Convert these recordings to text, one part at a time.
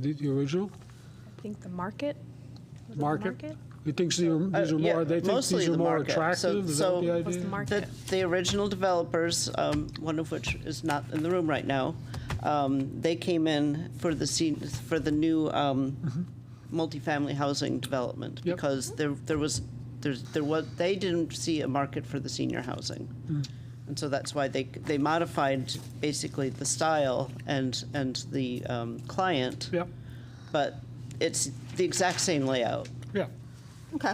The the original? I think the market. was it the Market? You think these are these Uh, are yeah, more, they think mostly these the are more market. So- attractive? Is that so- the Was the idea? market? The, the original developers, um, one of which is not in the room right now, um, they came in for the scene, for the new um, multifamily housing development Yep. because there there was there's there was they didn't see a market for the senior housing, and so that's why they they modified basically the style and and the um, client, Yeah, but it's the exact same layout. yeah, Okay,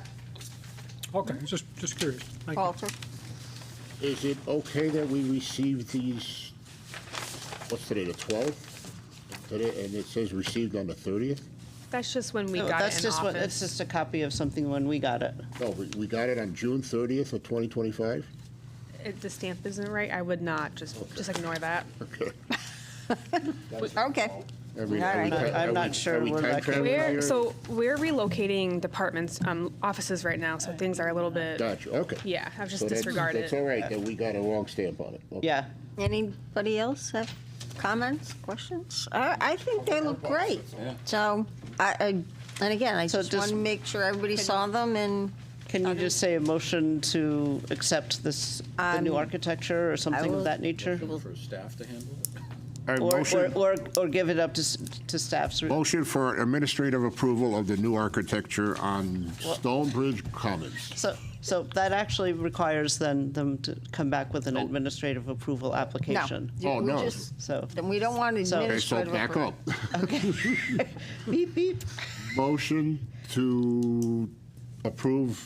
okay, just, just curious. Thank you. Walter. Is it okay that we receive these, what's today, the 12th? Today, and it says received on the 30th? That's just when we No, got that's it in just office. what it's just a copy of something when we got it. No, we we got it on June 30th of 2025? If the stamp isn't right, I would not just just ignore that. Okay. Okay. I mean, All are we right. ti- I'm are we- not are sure we where time that came traveling We're here? so we're relocating departments, um, offices right now, so things are a little bit. Gotcha, okay. Yeah, I've just So that's- disregarded That's it. all right, that we got a wrong stamp on it. Okay. Yeah. Anybody else have comments, questions? I, I think they look great. So, I, I, and again, I So just just- want to make sure everybody saw them and Can you just say a motion to accept this, the new Um, architecture or something will- of that nature? for staff to handle it? All right, Or, or, motion, or, or give it up to, s- to staff's? re- motion for administrative approval of the new architecture on Stonebridge Commons. So, so that actually requires then them to come back with an administrative approval no. application. Oh, We no. just- So, Then we don't want So- Okay, so administrative. back approval. up. beep, beep. Motion to approve,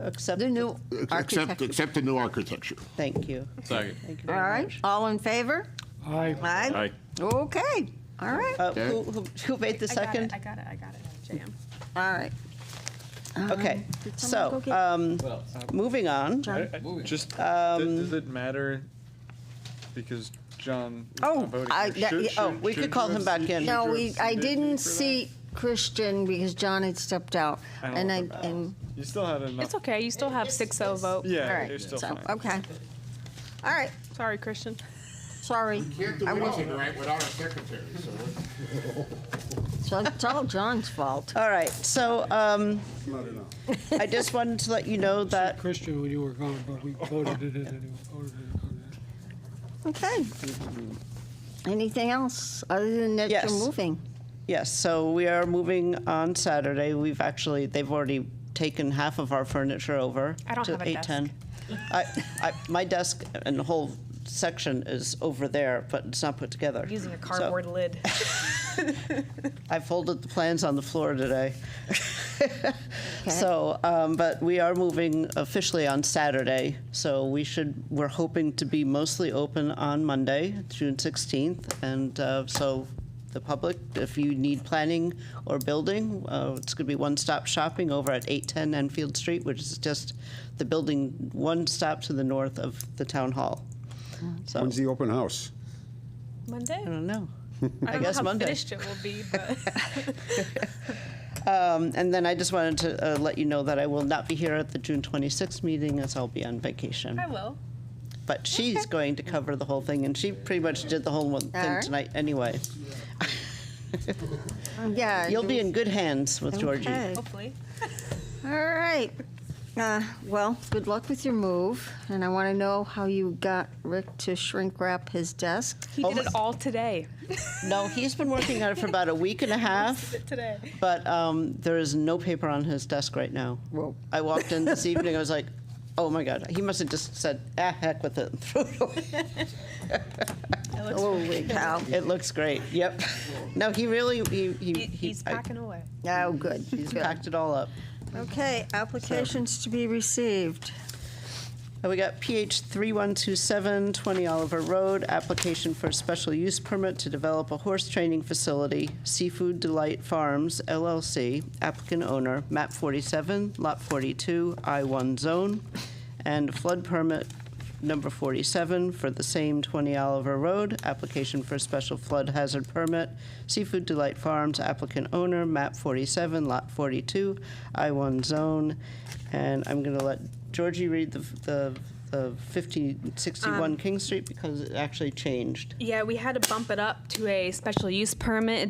Accept, The new accept, architecture. accept the new architecture. thank you. Second. Thank you All very right, much. all in favor? Aye. Aye. Okay, all right, all Uh, who, who who made the second? I got it. I got it. JM. right. Okay, Did someone go so, get- um, Well, moving on. Just, does does it matter? Because John. was Oh, not voting I- here. that- Should- yeah, oh, should- Uh, we could should call you him have back seated- in. should No, you have we, I seated me didn't for that? see Christian because John had stepped out. I don't And I, know about and, You still had enough. It's okay. You still have six zero vote. all Yeah, right, you're still so, fine. okay. All right, Sorry, Christian. sorry. I will- without a secretary, So it's all John's fault. All right, so, um, I just wanted to let you know that Christian, when you were gone, but we voted it in anyway. voted it on that. Okay. Anything else other than that you're Yes. moving? Yes, so we are moving on Saturday. We've actually, they've already taken half of our furniture over I don't to have a desk. 810. I, I, my desk and the whole section is over there, but it's not put together. Using a So cardboard lid. I folded the plans on the floor today. So, um, but we are moving officially on Saturday, so we should, we're hoping to be mostly open on Monday, June 16th. And uh, so the public, if you need planning or building, uh, it's going to be one-stop shopping over at 810 Enfield Street, which is just the building, one stop to the north of the town hall. So, When's the open house? Monday. I don't know. I, don't guess know how Monday. finished it will be, but Um, And then I just wanted to uh, let you know that I will not be here at the June 26th meeting, as I'll be on vacation. I will. But she's going to cover the whole thing, and she pretty much did the whole one thing Alright. tonight anyway. Yeah. You'll be in good hands with Georgie. Okay. Hopefully. All right. Uh, Well, good luck with your move, and I want to know how you got Rick to shrink wrap his desk. He did it all today. No, he's been working on it for about a week and a half, Today. but um, there is no paper on his desk right now. Whoa. I walked in this evening, I was like, oh my God, he must have just said, ah, heck with it, and threw it away. Holy cow. It looks great, yep. No, he really, he, he. He, he's I- packing away. Oh, good. He's packed it all up. Okay, applications to be received. Uh, We got PH 3127, 20 Oliver Road, application for a special use permit to develop a horse training facility, Seafood Delight Farms LLC, applicant owner, map 47, lot 42, I-1 zone, and flood permit number 47 for the same 20 Oliver Road, application for a special flood hazard permit, Seafood Delight Farms, applicant owner, map 47, lot 42, I-1 zone, and I'm going to let Georgie read the, the of 1561 King Street because it actually changed. Yeah, we had to bump it up to a special use permit.